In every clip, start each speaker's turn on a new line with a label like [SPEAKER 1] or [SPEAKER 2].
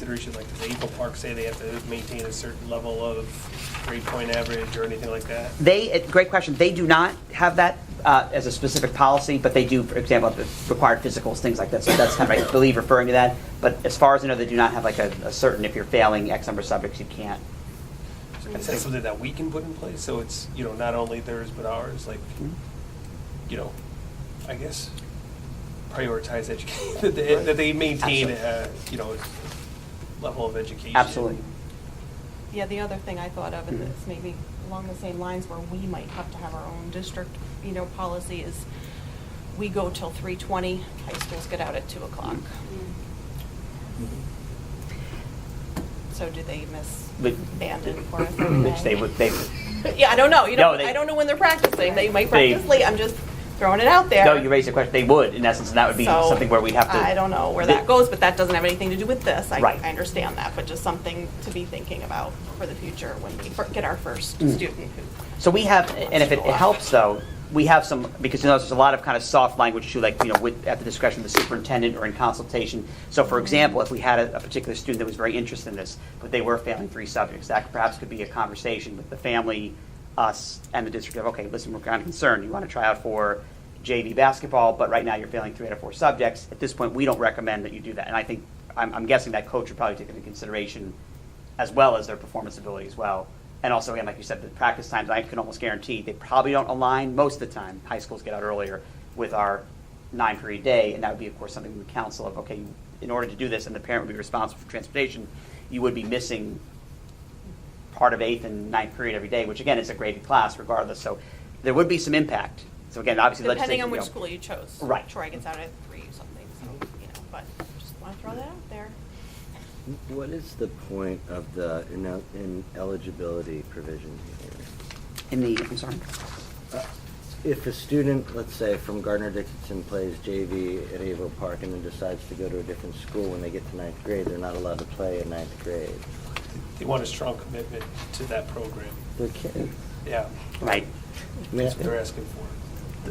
[SPEAKER 1] contribution, like does Eagle Park say they have to maintain a certain level of grade point average or anything like that?
[SPEAKER 2] They, eh, great question, they do not have that uh, as a specific policy, but they do, for example, the required physicals, things like that, so that's kind of, I believe, referring to that. But as far as I know, they do not have like a a certain, if you're failing X number of subjects, you can't.
[SPEAKER 1] Is that something that we can put in place, so it's, you know, not only theirs but ours, like, you know, I guess prioritize education, that they, that they maintain, uh, you know, level of education.
[SPEAKER 2] Absolutely.
[SPEAKER 3] Yeah, the other thing I thought of, and
[SPEAKER 2] Mhm.
[SPEAKER 3] it's maybe along the same lines where we might have to have our own district, you know, policy is we go till three twenty, high schools get out at two o'clock.
[SPEAKER 2] Mm-hmm.
[SPEAKER 3] So do they miss
[SPEAKER 2] But-
[SPEAKER 3] banded for a third
[SPEAKER 2] Which they
[SPEAKER 3] day?
[SPEAKER 2] would, they,
[SPEAKER 3] Yeah, I don't know, you
[SPEAKER 2] No,
[SPEAKER 3] know,
[SPEAKER 2] they-
[SPEAKER 3] I don't know when they're practicing, they might
[SPEAKER 2] They-
[SPEAKER 3] practice late, I'm just throwing it out there.
[SPEAKER 2] no, you raise a question, they would, in essence, and that would be
[SPEAKER 3] So,
[SPEAKER 2] something where we'd have to.
[SPEAKER 3] I don't know where
[SPEAKER 2] They-
[SPEAKER 3] that goes, but that doesn't have anything to do with this. I,
[SPEAKER 2] Right.
[SPEAKER 3] I understand that, but just something to be thinking about for the future when we fir- get our first
[SPEAKER 2] Mm.
[SPEAKER 3] student who
[SPEAKER 2] So we have, and if it it helps though, we have some, because you know, there's a lot of kind of soft language too, like, you know, with, at the discretion of the superintendent or in consultation. So for example, if we had a, a particular student that was very interested in this, but they were failing three subjects, that perhaps could be a conversation with the family, us, and the district of, okay, listen, we're kind of concerned, you want to try out for JV basketball, but right now you're failing three out of four subjects. At this point, we don't recommend that you do that. And I think, I'm, I'm guessing that coach would probably take into consideration as well as their performance ability as well. And also, again, like you said, the practice times, I can almost guarantee they probably don't align most of the time. High schools get out earlier with our nine period day, and that would be, of course, something we would counsel of, okay, in order to do this, and the parent would be responsible for transportation, you would be missing part of eighth and ninth period every day, which again is a graded class regardless. So there would be some impact. So again, obviously,
[SPEAKER 3] depending on
[SPEAKER 2] legislation,
[SPEAKER 3] which
[SPEAKER 2] you know,
[SPEAKER 3] school you chose.
[SPEAKER 2] Right.
[SPEAKER 3] Troy gets out at three or something, so, you know, but just want to throw that out there.
[SPEAKER 4] What is the point of the inel- ineligibility provision here?
[SPEAKER 2] In the, I'm sorry.
[SPEAKER 4] If a student, let's say, from Gardner Dickinson plays JV at Avo Park and then decides to go to a different school when they get to ninth grade, they're not allowed to play in ninth grade.
[SPEAKER 1] They want a strong commitment to that program,
[SPEAKER 4] They're kids.
[SPEAKER 1] yeah,
[SPEAKER 2] Right.
[SPEAKER 4] I mean,
[SPEAKER 1] that's what they're asking for.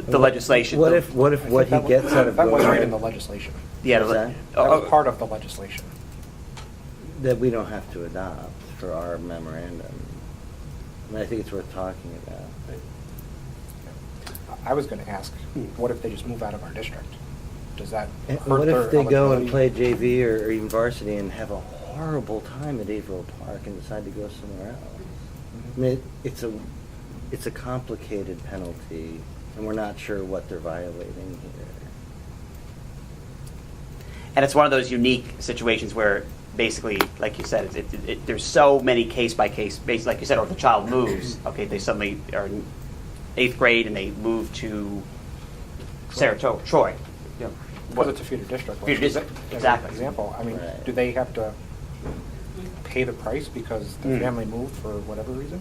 [SPEAKER 2] The, the legislation.
[SPEAKER 4] What if, what if what he
[SPEAKER 5] That wa-
[SPEAKER 4] gets out of
[SPEAKER 5] That was
[SPEAKER 4] going-
[SPEAKER 5] right in the legislation.
[SPEAKER 2] Yeah. the-
[SPEAKER 4] What's that?
[SPEAKER 2] oh,
[SPEAKER 5] That was
[SPEAKER 2] oh,
[SPEAKER 5] part of the legislation.
[SPEAKER 4] That we don't have to adopt for our memorandum. And I think it's worth talking about.
[SPEAKER 5] I was gonna ask, what if they just move out of our district? Does that
[SPEAKER 4] Hmm. And
[SPEAKER 5] hurt their
[SPEAKER 4] What if they go and play
[SPEAKER 5] eligibility?
[SPEAKER 4] JV or or even varsity and have a horrible time at Averill Park and decide to go somewhere else? I
[SPEAKER 5] Mm-hmm.
[SPEAKER 4] mean, it- it's a, it's a complicated penalty, and we're not sure what they're violating here.
[SPEAKER 2] And it's one of those unique situations where basically, like you said, it, it, it, there's so many case by case, based, like you said, or if the child moves, okay, they suddenly are in eighth grade and they move to Saratoga, Troy. you know,
[SPEAKER 5] Because it's a feeder district. like,
[SPEAKER 2] Feeder
[SPEAKER 5] as a-
[SPEAKER 2] district,
[SPEAKER 5] as an
[SPEAKER 2] exactly.
[SPEAKER 5] Example, I mean,
[SPEAKER 4] Right.
[SPEAKER 5] do they have to pay the price because the
[SPEAKER 4] Hmm.
[SPEAKER 2] Mm.
[SPEAKER 5] family moved for whatever reason?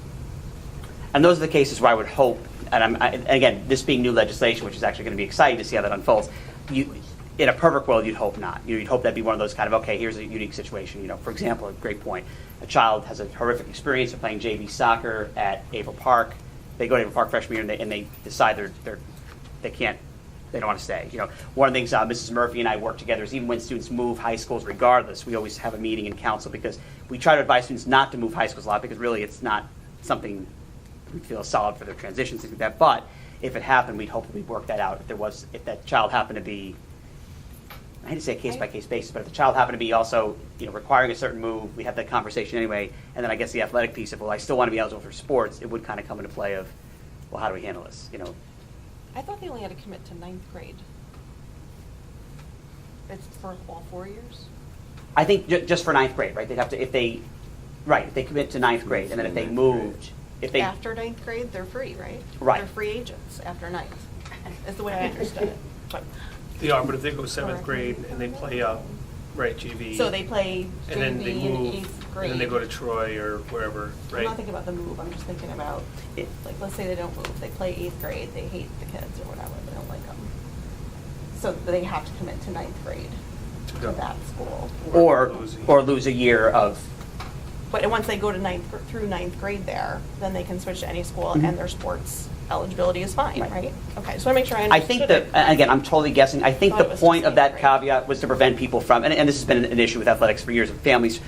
[SPEAKER 2] And those are the cases where I would hope, and I'm, I, and again, this being new legislation, which is actually going to be exciting to see how that unfolds, you, in a perfect world, you'd hope not. You know, You'd hope that'd be one of those kind of, okay, here's a unique situation, you know, for example, a great point. A child has a horrific experience of playing JV soccer at Ava Park. They go to Ava Park freshman year and they, and they decide they're, they're, they can't they don't want to stay. You know, one of the things uh, Mrs. Murphy and I work together is even when students move high schools, regardless, we always have a meeting in council because we try to advise students not to move high schools a lot because really it's not something we feel solid for their transitions things like that. But if it happened, we'd hope we'd work that out. If there was, if that child happened to be, I hate to say case by case basis, but if the child happened to be also, you know, requiring a certain move, we have that conversation anyway. And then I guess the athletic piece of well, I still want to be eligible for sports. It would kind of come into play of, well, how do we handle this? You know,
[SPEAKER 3] I thought they only had to commit to ninth grade. It's for all four years?
[SPEAKER 2] I think ju- just for ninth grade, right? They'd have to, if they, right, if they commit to ninth grade, and then if they
[SPEAKER 4] Ninth
[SPEAKER 2] moved, if they.
[SPEAKER 3] After ninth grade, they're free, right?
[SPEAKER 2] Right.
[SPEAKER 3] They're free agents after ninth, is the way I understood it. But-
[SPEAKER 1] They are, but if they go seventh
[SPEAKER 3] Correct.
[SPEAKER 1] grade and they play up, right, JV.
[SPEAKER 3] So they play
[SPEAKER 1] And then they
[SPEAKER 3] JV in
[SPEAKER 1] move,
[SPEAKER 3] eighth grade.
[SPEAKER 1] and then they go to Troy or wherever,
[SPEAKER 3] I'm
[SPEAKER 1] right?
[SPEAKER 3] not thinking about the move, I'm just thinking about,
[SPEAKER 2] It-
[SPEAKER 3] like, let's say they don't move, they play eighth grade, they hate the kids or whatever, they don't like them. So they have to commit to ninth grade
[SPEAKER 1] To
[SPEAKER 3] to
[SPEAKER 1] go.
[SPEAKER 3] that school.
[SPEAKER 2] Or,
[SPEAKER 1] Lose a-
[SPEAKER 2] or lose a year of,
[SPEAKER 3] But once they go to ninth, gr- through ninth grade there, then they can switch to any school and their sports eligibility is fine,
[SPEAKER 2] Mm-hmm. Right.
[SPEAKER 3] right? Okay, so I make sure I
[SPEAKER 2] I
[SPEAKER 3] understood
[SPEAKER 2] think
[SPEAKER 3] it.
[SPEAKER 2] that, and again, I'm totally guessing, I think
[SPEAKER 3] Thought
[SPEAKER 2] the
[SPEAKER 3] it was
[SPEAKER 2] point
[SPEAKER 3] just
[SPEAKER 2] of that
[SPEAKER 3] eighth grade.
[SPEAKER 2] caveat was to prevent people from, and, and this has been an- an issue with athletics for years, and families